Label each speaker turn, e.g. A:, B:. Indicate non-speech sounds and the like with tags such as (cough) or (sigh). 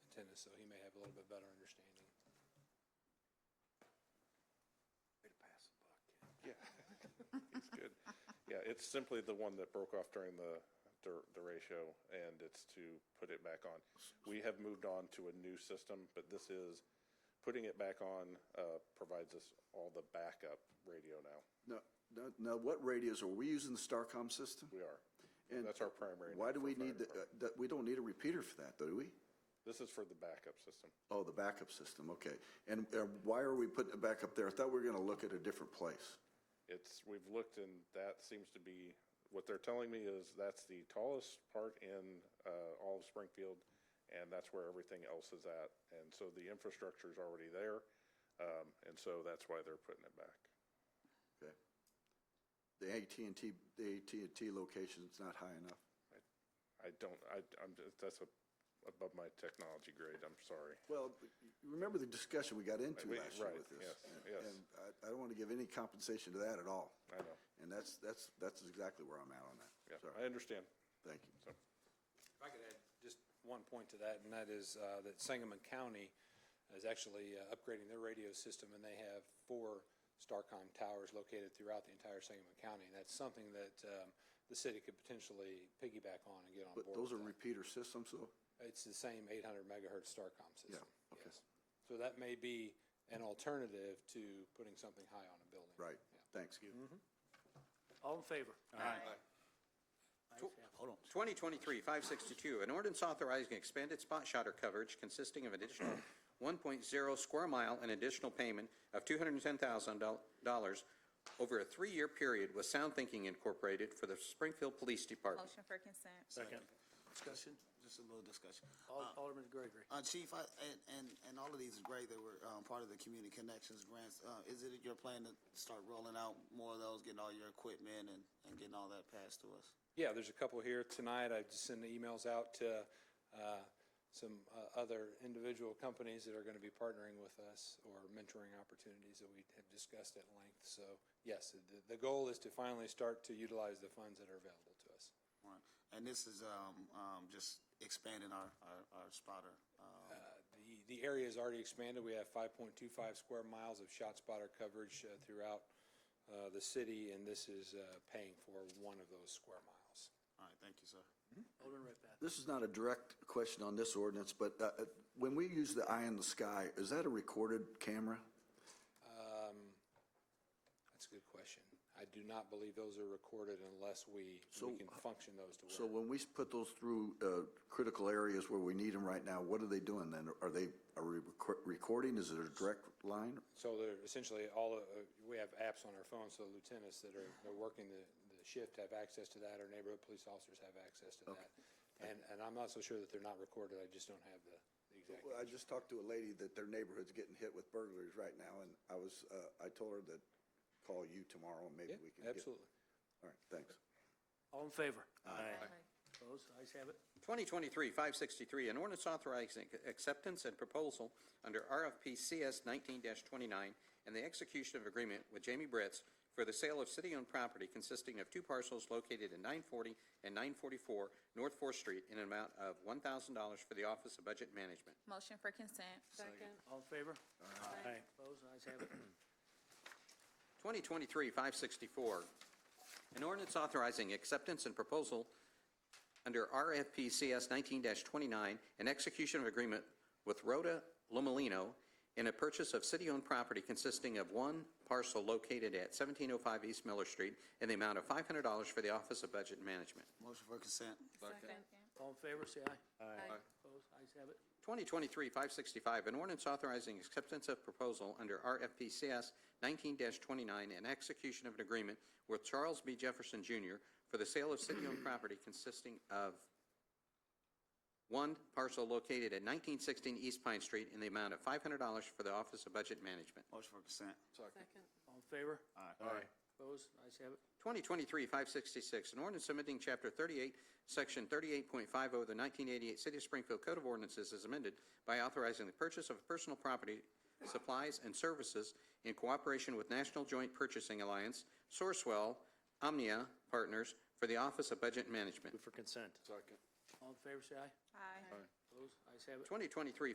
A: so he may have a little bit better understanding.
B: Way to pass the buck, kid.
C: Yeah, it's good. Yeah, it's simply the one that broke off during the, dur- the ratio, and it's to put it back on. We have moved on to a new system, but this is, putting it back on uh, provides us all the backup radio now.
B: No, no, now what radios, are we using the Starcom system?
C: We are.
B: And
C: That's our primary.
B: Why do
C: for
B: we
C: fire
B: need, the? uh,
C: department.
B: that, we don't need a repeater for that, though, do we?
C: This is for the backup system.
B: Oh, the backup system, okay. And uh, why are we putting it back up there? I thought we were going to look at a different place.
C: It's, we've looked and that seems to be, what they're telling me is that's the tallest part in uh, all of Springfield and that's where everything else is at. And so the infrastructure's already there. um, And so that's why they're putting it back.
B: Okay. The at and T, the at and T location's not high enough.
C: I don't, I, I'm, just- that's a- above my technology grade, I'm sorry.
B: Well, you remember the discussion we got into
C: We-
B: last year
C: right,
B: with this?
C: yes, yes.
B: And I, I don't want to give any compensation to that at all.
C: I know.
B: And that's, that's, that's exactly where I'm at on
C: Yeah, I
B: that. Sorry.
C: understand.
B: Thank you.
C: So,
A: If I could add just one point to that, and that is uh, that Sangamon County is actually uh, upgrading their radio system, and they have four Starcom towers located throughout the entire Sangamon County. And that's something that um, the city could potentially piggyback on and get on board
B: But those are
A: with that.
B: repeater systems, though?
A: It's the same 800 megahertz Starcom system.
B: Yeah, okay.
A: yes. So that may be an alternative to putting something high on a building.
B: Right.
A: Yeah.
B: Thanks.
D: All in favor?
E: Aye.
D: Ayes have it.
E: Hold on.
F: 2023-562, an ordinance authorizing expanded spot shotter coverage consisting of additional (coughs) 1.0 square mile and additional payment of $210,000 over a three-year period with Sound Thinking Incorporated for the Springfield Police Department.
G: Motion for consent.
D: Second.
E: Discussion, just a little discussion.
D: Al- Alderman Gregory.
H: Uh, Chief, I, and, and, and all of these is great that were, um, part of the Community Connections grants. Uh, is it your plan to start rolling out more of those, getting all your equipment and, and getting all that passed to us?
A: Yeah, there's a couple here tonight. I just sent emails out to uh, some uh, other individual companies that are going to be partnering with us or mentoring opportunities that we have discussed at length. So yes, the, the goal is to finally start to utilize the funds that are available to us.
H: All right. And this is, um, um, just expanding our, our, our spotter,
A: Uh,
H: um,
A: The, the area is already expanded. We have 5.25 square miles of shot spotter coverage uh, throughout uh, the city, and this is uh, paying for one of those square miles.
H: all right, thank you, sir.
D: Alderman Redpath.
B: This is not a direct question on this ordinance, but uh, uh, when we use the eye in the sky, is that a recorded camera?
A: That's a good question. I do not believe those are recorded unless we,
B: So-
A: we can function those to where.
B: So when we put those through uh, critical areas where we need them right now, what are they doing then? Are they, are we recor- recording? Is it a direct line?
A: So they're essentially all, uh, we have apps on our phones, so lieutenants that are, they're working the, the shift have access to that, or neighborhood police officers have access to that. And, and I'm not so sure that they're not recorded, I just don't have the the exact.
B: Well, I just talked to a lady that their neighborhood's getting hit with burglaries right now, and I was, uh, I told her that call you tomorrow, and maybe
A: Yeah,
B: we can get.
A: absolutely.
B: All right, thanks.
D: All in favor?
E: Ah.
G: Aye.
D: Opposed? Ayes have it.
F: 2023-563, an ordinance authorizing acceptance and proposal under RFP CS 19-29 and the execution of agreement with Jamie Britz for the sale of city-owned property consisting of two parcels located in 940 and 944 North Fourth Street in an amount of $1,000 for the Office of Budget Management.
G: Motion for consent.
E: Second.
D: All in favor?
E: Aye.
D: Opposed? Ayes have it.
F: 2023-564, an ordinance authorizing acceptance and proposal under RFP CS 19-29 and execution of agreement with Rhoda Lomolino in a purchase of city-owned property consisting of one parcel located at 1705 East Miller Street in the amount of $500 for the Office of Budget Management.
H: Motion for consent.
E: Second.
D: All in favor, say aye.
E: Aye.
D: Opposed? Ayes have it.
F: 2023-565, an ordinance authorizing acceptance of proposal under RFPCS 19-29 and execution of an agreement with Charles B. Jefferson Jr. for the sale of city-owned property consisting of one parcel located at 1916 East Pine Street in the amount of $500 for the Office of Budget Management.
H: Motion for consent.
E: Second.
D: All in favor?
H: Aye.
D: Opposed? Ayes have it.
F: 2023-566, an ordinance amending Chapter 38, Section 38.50 of oh, the 1988 City of Springfield Code of Ordinances is amended by authorizing the purchase of personal property, supplies, and services in cooperation with National Joint Purchasing Alliance, Sourcewell, Omnia Partners, for the Office of Budget Management.
E: Move for consent.
B: Second.
D: All in favor, say aye.
G: Aye.
D: Opposed? Ayes have it.
F: 2023